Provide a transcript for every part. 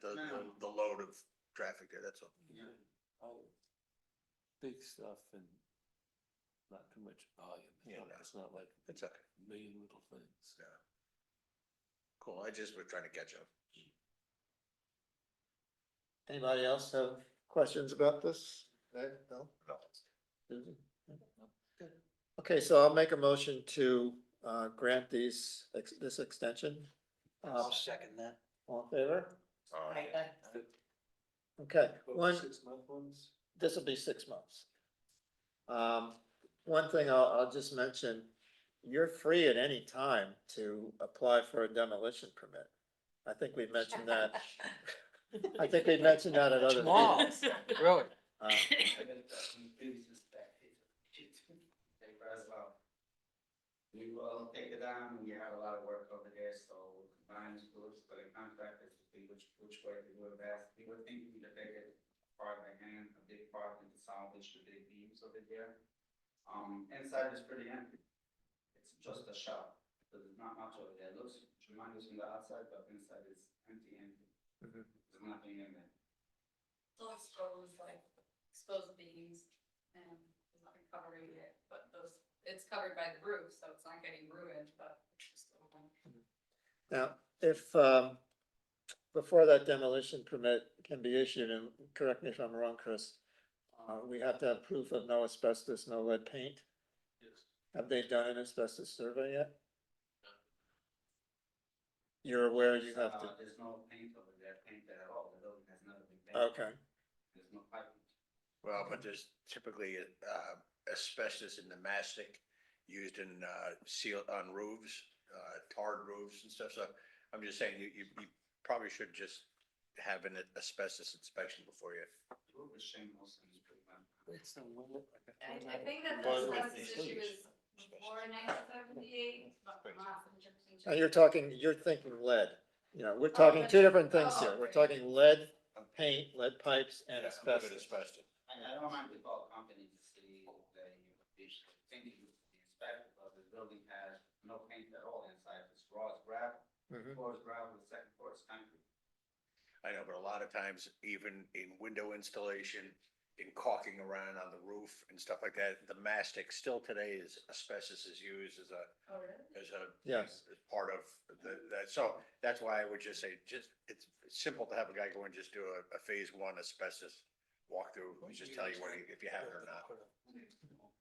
the, the- the load of traffic there, that's all. all Oh. big stuff and not too much volume. It's Yeah, not- no. It's not like It's okay. a million little things. Yeah. Cool, I just was trying to catch up. Anybody else have questions about this? Okay, no? No. Susan? Good. Okay, so I'll make a motion to uh grant these, ex- this extension. Uh, second that. All in favor? All right. Okay, one, Six month ones? this will be six months. Um, one thing I'll, I'll just mention, you're free at any time to apply for a demolition permit. I think we mentioned that, I think we mentioned that at other. Tomorrow. meetings. Really? Uh, Thank you as well. We will take it down, we have a lot of work over there, so combined schools, but the contractors, to see which, which way to do it best. We were thinking to take it part by hand, a big part into salvage, the big beams over there. Um, inside is pretty empty. It's just a shop, there's not much over there, looks tremendous from the outside, but inside is empty, empty. Mhm. There's nothing in there. Still expose like exposed beams and it's not recovering it, but those, it's covered by the roof, so it's not getting ruined, but it's just. a little- Now, if, um, before that demolition permit can be issued, and correct me if I'm wrong, Chris, uh, we have to have proof of no asbestos, no lead paint. Yes. Have they done an asbestos survey yet? You're aware you have Uh, to, There's no paint over there, painted at all, the building has never been painted. okay, There's no piping. Well, but there's typically uh, asbestos in the mastic used in uh, seal on roofs, uh, tarred roofs and stuff. So I'm just saying you, you you probably should just have an asbestos inspection before you. Who was Shane Wilson, he's pretty much. It's a little. I, I think that Well, this like has these this issue things. is before nineteen seventy-eight, but not in now you're talking, you're thinking lead, you know, we're talking two different things here, we're talking lead paint, lead pipes and Yeah, look at asbestos. Asbestos. I, I don't mind the call company to see that you would be thinking you would be inspected, but the building has no paint at all inside, it's raw as gravel. Mhm. Floor is gravel, the second floor is concrete. I know, but a lot of times even in window installation, in caulking around on the roof and stuff like that, the mastic still today is asbestos is used as a Oh, really? as a. Yes. As part of the, that, so that's why I would just say, just, it's simple to have a guy go and just do a, a phase one asbestos walkthrough, and just tell you what, if you have it or not.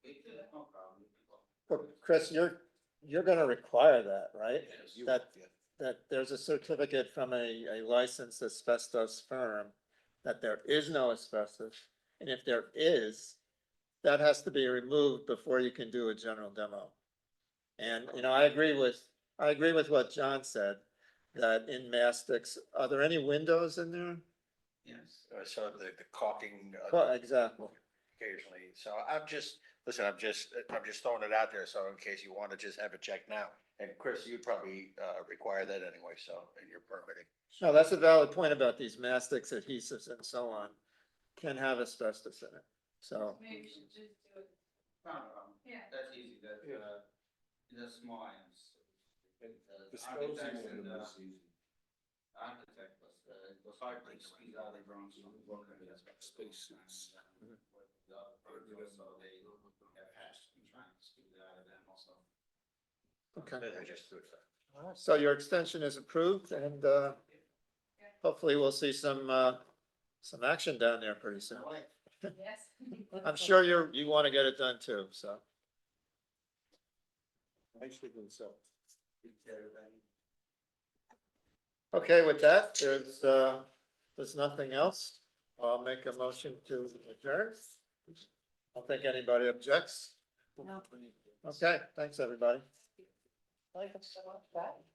We did, no problem. we can go. But Chris, you're, you're gonna require that, right? Yes. You- That- yeah. that there's a certificate from a, a licensed asbestos firm that there is no asbestos, and if there is, that has to be removed before you can do a general demo. And, you know, I agree with, I agree with what John said, that in mastics, are there any windows in there? Yes. Uh, So the, the caulking uh, Well, exactly, occasionally, so I'm just, listen, I'm just, I'm just throwing it out there, so in case you wanna just have it checked now. And Chris, you'd probably, uh, require that anyway, so, in your permitting. no, that's a valid point about these mastics adhesives and so on, can have asbestos in it, so, Maybe we should just do it, No problem. yeah. That's easy, that, Yeah. uh, the small items. The Disposing architects of and uh, them the is easy. architect was, uh, it was hard to squeeze out the grounds from the work. Spaces. And, uh, The other projects, so they have hatched and trying to squeeze it out of them also. okay. I just threw it out. So your extension is approved and uh, hopefully we'll see some, uh, some action down there pretty soon. Like, Yes. I'm sure you're, you want to get it done too, so. Actually, themselves. it's everybody. Okay, with that, there's, uh, there's nothing else. I'll make a motion to adjourn. I don't think anybody objects. Okay, thanks, everybody. Like, I'm so much that.